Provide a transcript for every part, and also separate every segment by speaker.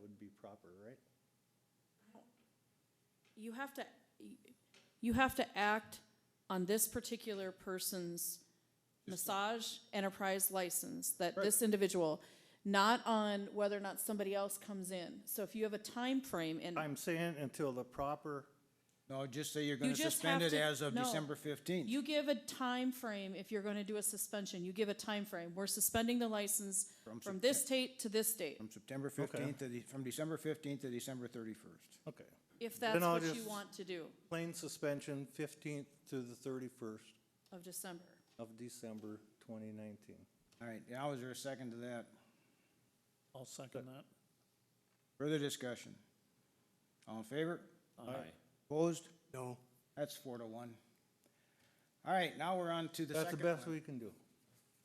Speaker 1: would be proper, right?
Speaker 2: You have to, you have to act on this particular person's massage enterprise license, that this individual, not on whether or not somebody else comes in. So if you have a time frame, and
Speaker 1: I'm saying until the proper,
Speaker 3: No, just say you're
Speaker 2: you
Speaker 3: gonna
Speaker 2: just
Speaker 3: suspend
Speaker 2: have
Speaker 3: it
Speaker 2: to.
Speaker 3: as of
Speaker 2: no.
Speaker 3: December fifteenth.
Speaker 2: You give a time frame if you're gonna do a suspension, you give a time frame. We're suspending the license
Speaker 3: From
Speaker 2: from this date to this date,
Speaker 3: From September fifteenth to the, from December fifteenth to December thirty-first.
Speaker 1: okay.
Speaker 2: if
Speaker 1: Then
Speaker 2: that's
Speaker 1: I'll
Speaker 2: what you
Speaker 1: just-
Speaker 2: want to do
Speaker 1: Plain suspension fifteenth to the thirty-first
Speaker 2: of December.
Speaker 1: of December twenty nineteen.
Speaker 3: All right, now is there a second to that?
Speaker 4: I'll second that.
Speaker 3: Further discussion? All in favor?
Speaker 5: Aye.
Speaker 3: Opposed?
Speaker 4: No.
Speaker 3: That's four to one. All right, now we're on to the
Speaker 1: That's the
Speaker 3: second
Speaker 1: best
Speaker 3: one.
Speaker 1: we can do.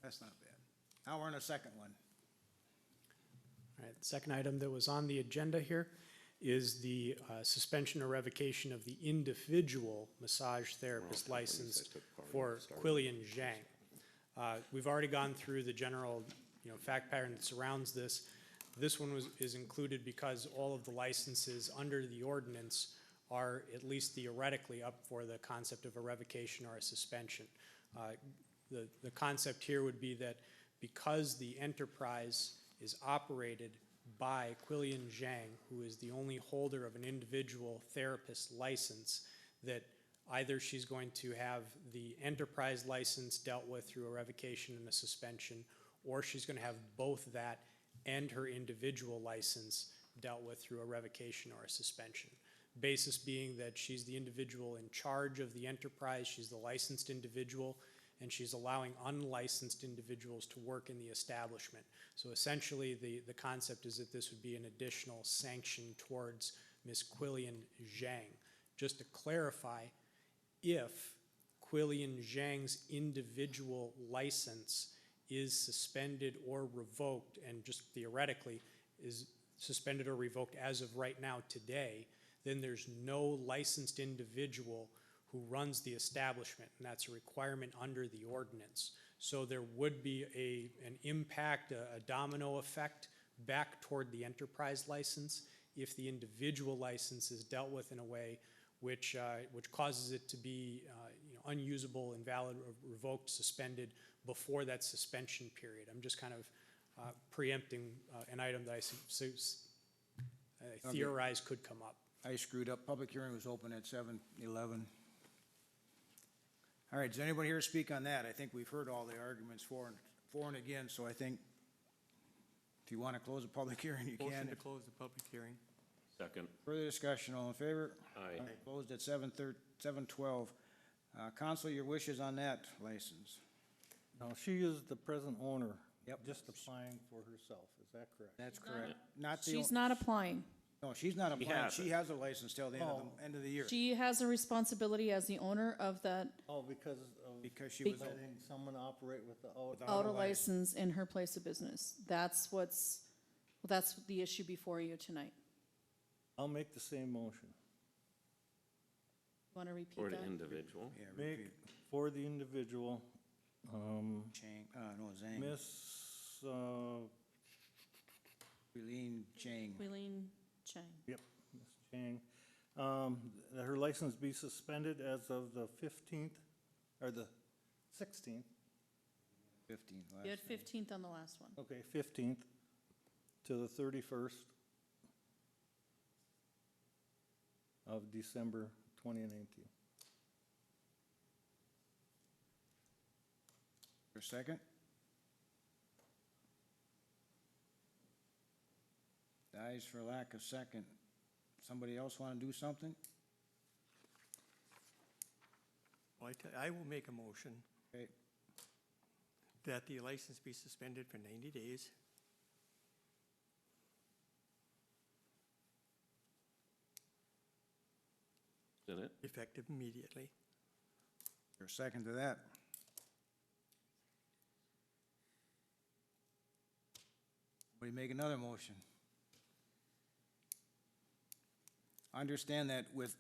Speaker 3: That's not bad. Now we're on the second one.
Speaker 6: All right, the second item that was on the agenda here is the uh, suspension or revocation of the individual massage therapist license for Quillian Zhang. Uh, We've already gone through the general, you know, fact pattern that surrounds this. This one was, is included because all of the licenses under the ordinance are at least theoretically up for the concept of a revocation or a suspension. Uh, The, the concept here would be that because the enterprise is operated by Quillian Zhang, who is the only holder of an individual therapist license, that either she's going to have the enterprise license dealt with through a revocation and a suspension, or she's going to have both that and her individual license dealt with through a revocation or a suspension. Basis being that she's the individual in charge of the enterprise, she's the licensed individual, and she's allowing unlicensed individuals to work in the establishment. So essentially, the, the concept is that this would be an additional sanction towards Ms. Quillian Zhang. Just to clarify, if Quillian Zhang's individual license is suspended or revoked, and just theoretically is suspended or revoked as of right now today, then there's no licensed individual who runs the establishment, and that's a requirement under the ordinance. So there would be a, an impact, a a domino effect back toward the enterprise license if the individual license is dealt with in a way which, uh, which causes it to be, uh, you know, unusable, invalid, or revoked, suspended before that suspension period. I'm just kind of, uh, preempting, uh, an item that I su- su- s- I theorize could come up.
Speaker 3: I screwed up. Public hearing was open at seven eleven. All right, does anybody here speak on that? I think we've heard all the arguments for and, for and again, so I think if you want to close the public hearing, you
Speaker 7: Motion
Speaker 3: can.
Speaker 7: to close the public hearing.
Speaker 5: Second.
Speaker 3: Further discussion, all in favor?
Speaker 5: Aye.
Speaker 3: Opposed at seven thir, seven twelve. Uh, council, your wishes on that license?
Speaker 1: Now, she is the present owner.
Speaker 3: Yep.
Speaker 1: Just applying for herself, is that correct?
Speaker 3: That's correct. Not the,
Speaker 2: She's not applying.
Speaker 3: o- no, she's not applying.
Speaker 5: has
Speaker 3: She has a license till the end of the, end of the year
Speaker 2: She has a responsibility as the owner of that
Speaker 1: Oh, because of
Speaker 3: because she was,
Speaker 1: letting someone operate with the, oh,
Speaker 2: auto
Speaker 3: Auto license.
Speaker 2: license in her place of business. That's what's, that's the issue before you tonight.
Speaker 1: I'll make the same motion.
Speaker 2: Want to repeat
Speaker 5: For an
Speaker 2: that?
Speaker 5: individual.
Speaker 3: yeah,
Speaker 1: Make
Speaker 3: repeat,
Speaker 1: for the individual, um,
Speaker 3: Chang, uh, no, Zhang,
Speaker 1: Miss, uh,
Speaker 3: Eileen Chang.
Speaker 2: Wheeling Chang.
Speaker 1: Yep, Ms. Chang. Um, that her license be suspended as of the fifteenth, or the sixteenth,
Speaker 3: Fifteen.
Speaker 2: You had
Speaker 3: last name.
Speaker 2: fifteenth on the last one.
Speaker 1: okay, fifteenth to the thirty-first of December twenty nineteen.
Speaker 3: For a second? Dies for lack of second. Somebody else want to do something?
Speaker 7: Well, I tell- I will make a motion
Speaker 3: Okay,
Speaker 7: that the license be suspended for 90 days.
Speaker 5: Is that it?
Speaker 7: Effective immediately.
Speaker 3: for a second to that. We make another motion. Understand that with,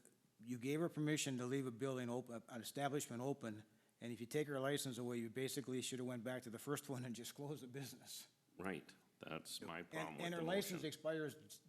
Speaker 3: you gave her permission to leave a building open, an establishment open, and if you take her license away, you basically should have went back to the first one and just closed the business.
Speaker 5: Right. That's my
Speaker 3: And,
Speaker 5: problem with
Speaker 3: and
Speaker 5: the
Speaker 3: her
Speaker 5: motion.
Speaker 3: license expires